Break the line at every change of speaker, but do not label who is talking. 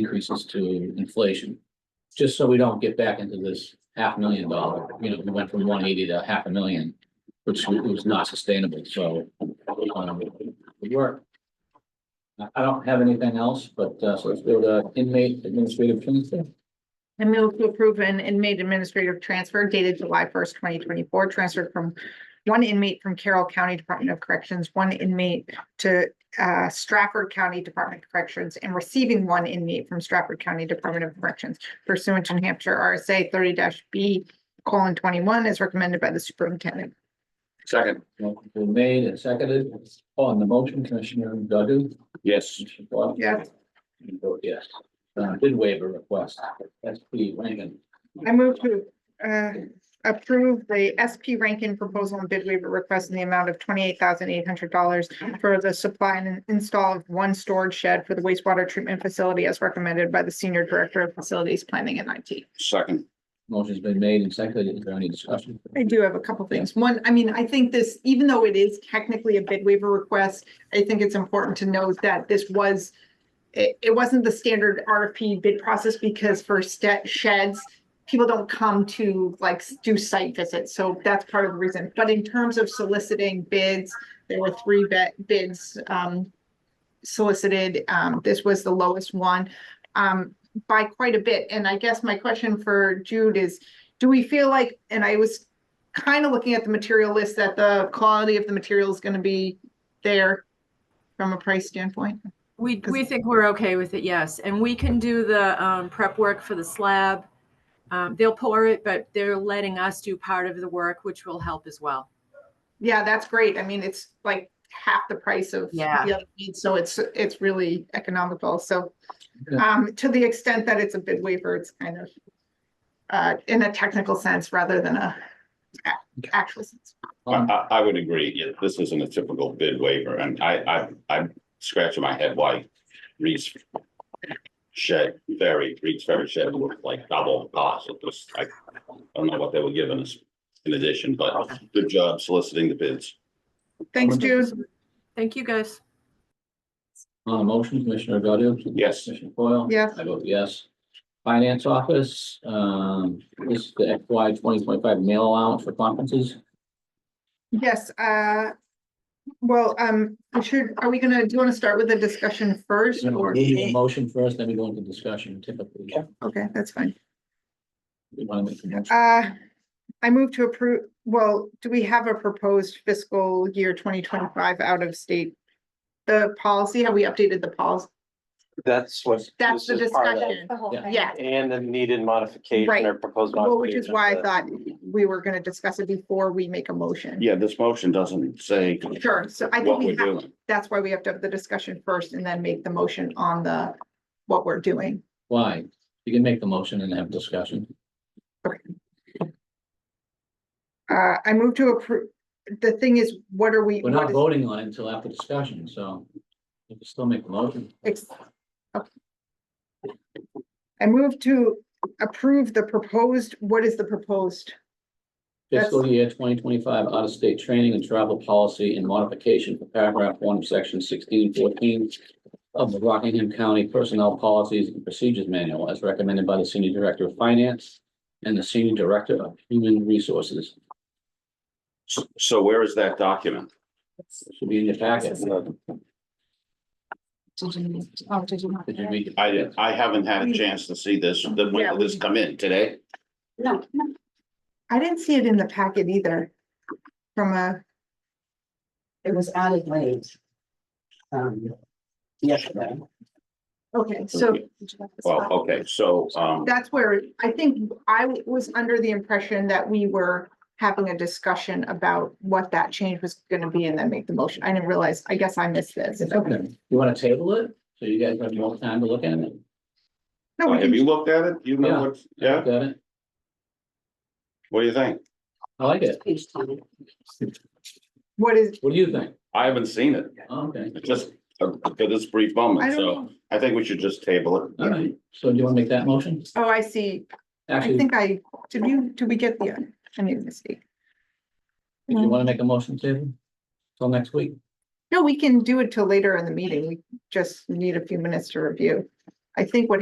increases to inflation. Just so we don't get back into this half million dollar, you know, we went from one eighty to half a million, which was not sustainable, so. um, We work. I, I don't have anything else, but, uh, so let's go to inmate administrative transfer.
I move to approve an inmate administrative transfer dated July first, twenty twenty-four, transferred from one inmate from Carroll County Department of Corrections, one inmate to uh, Stratford County Department of Corrections, and receiving one inmate from Stratford County Department of Corrections pursuant to New Hampshire RSA thirty B colon twenty-one as recommended by the superintendent.
Second.
Motion been made and seconded. On the motion, Commissioner Godu?
Yes.
Commissioner Foil?
Yes.
You vote Yes. Uh, did waive a request. SP Rankin.
I move to uh, approve the SP Rankin proposal and bid waiver request in the amount of twenty-eight thousand eight hundred dollars for the supply and install of one storage shed for the wastewater treatment facility as recommended by the Senior Director of Facilities Planning and IT.
Second.
Motion's been made and seconded. Is there any discussion?
I do have a couple things. One, I mean, I think this, even though it is technically a bid waiver request, I think it's important to note that this was, it, it wasn't the standard RFP bid process because for ste- sheds, people don't come to like s- do site visits. So that's part of the reason. But in terms of soliciting bids, there were three bet, bids, um, solicited. Um, this was the lowest one, um, by quite a bit. And I guess my question for Jude is, do we feel like, and I was kind of looking at the material list, that the quality of the material is gonna be there from a price standpoint?
We,
'Cause-
we think we're okay with it, yes. And we can do the um, prep work for the slab. Um, They'll pour it, but they're letting us do part of the work, which will help as well.
Yeah, that's great. I mean, it's like half the price of.
Yeah.
the other meat, So it's, it's really economical. So, um, to the extent that it's a bid waiver, it's kind of uh, in a technical sense rather than a a- actual sense.
I, I, I would agree. Yeah, this isn't a typical bid waiver and I, I, I'm scratching my head why Reese shed, ferry, Reese ferry shed looked like double the cost. It was, I, I don't know what they were giving us in addition, but good job soliciting the bids.
Thanks, Jude.
Thank you, guys.
On the Uh, motion, Commissioner Godu?
Yes.
Commissioner Foil?
Yes.
I vote yes. Finance Office, um, this is the FY twenty twenty-five mail allowance for conferences.
Yes, uh, well, um, I should, are we gonna, do you wanna start with the discussion first or?
Need a Motion first, then we go into discussion typically.
Okay, that's fine.
We want to make the motion.
Uh, I move to approve, well, do we have a proposed fiscal year twenty twenty-five out of state? The policy, have we updated the policy?
That's what.
That's
this
the
is part of that.
discussion.
Yeah.
Yeah,
And the needed modification
Right.
or proposed.
well, which is
modification
why I
of
thought we were gonna discuss it before we make a motion.
Yeah, this motion doesn't say
Sure, so I think
what
we
we're
have,
doing.
that's why we have to have the discussion first and then make the motion on the, what we're doing.
Why? You can make the motion and have discussion.
Uh, I move to approve, the thing is, what are we?
We're not
what is-
voting on it until after discussion, so you can still make the motion.
Ex- okay. I move to approve the proposed, what is the proposed?
Fiscal year twenty twenty-five out-of-state training and travel policy and modification for paragraph one of section sixteen fourteen of the Rockingham County Personnel Policies and Procedures Manual as recommended by the Senior Director of Finance and the Senior Director of Human Resources.
So- So where is that document?
Should be in your packet. Did you read it?
I didn't, I haven't had a chance to see this. Then when
Yeah,
did
we-
this come in? Today?
No, no. I didn't see it in the packet either. From a,
It was added late. Um, yesterday.
okay, so
Well, okay, so, um,
that's where, I think I was under the impression that we were having a discussion about what that change was gonna be and then make the motion. I didn't realize, I guess I missed this.
It's okay. You want to table it? So you guys have more time to look at it?
No, Oh, we
have
can-
you looked at it? You
Yeah.
know what, yeah?
Look at it?
What do you think?
I like it.
Page ten.
what is,
What do you think?
I haven't seen it,
Okay.
just uh, for this brief
I
moment,
don't
so
know.
I think we should just table it.
All right. So do you want to make that motion?
Oh, I see. I
Actually,
think I, did you, did we get the, I made a mistake.
if you want to make a motion, Tim, till next week.
No, we can do it till later in the meeting. We just need a few minutes to review. I think what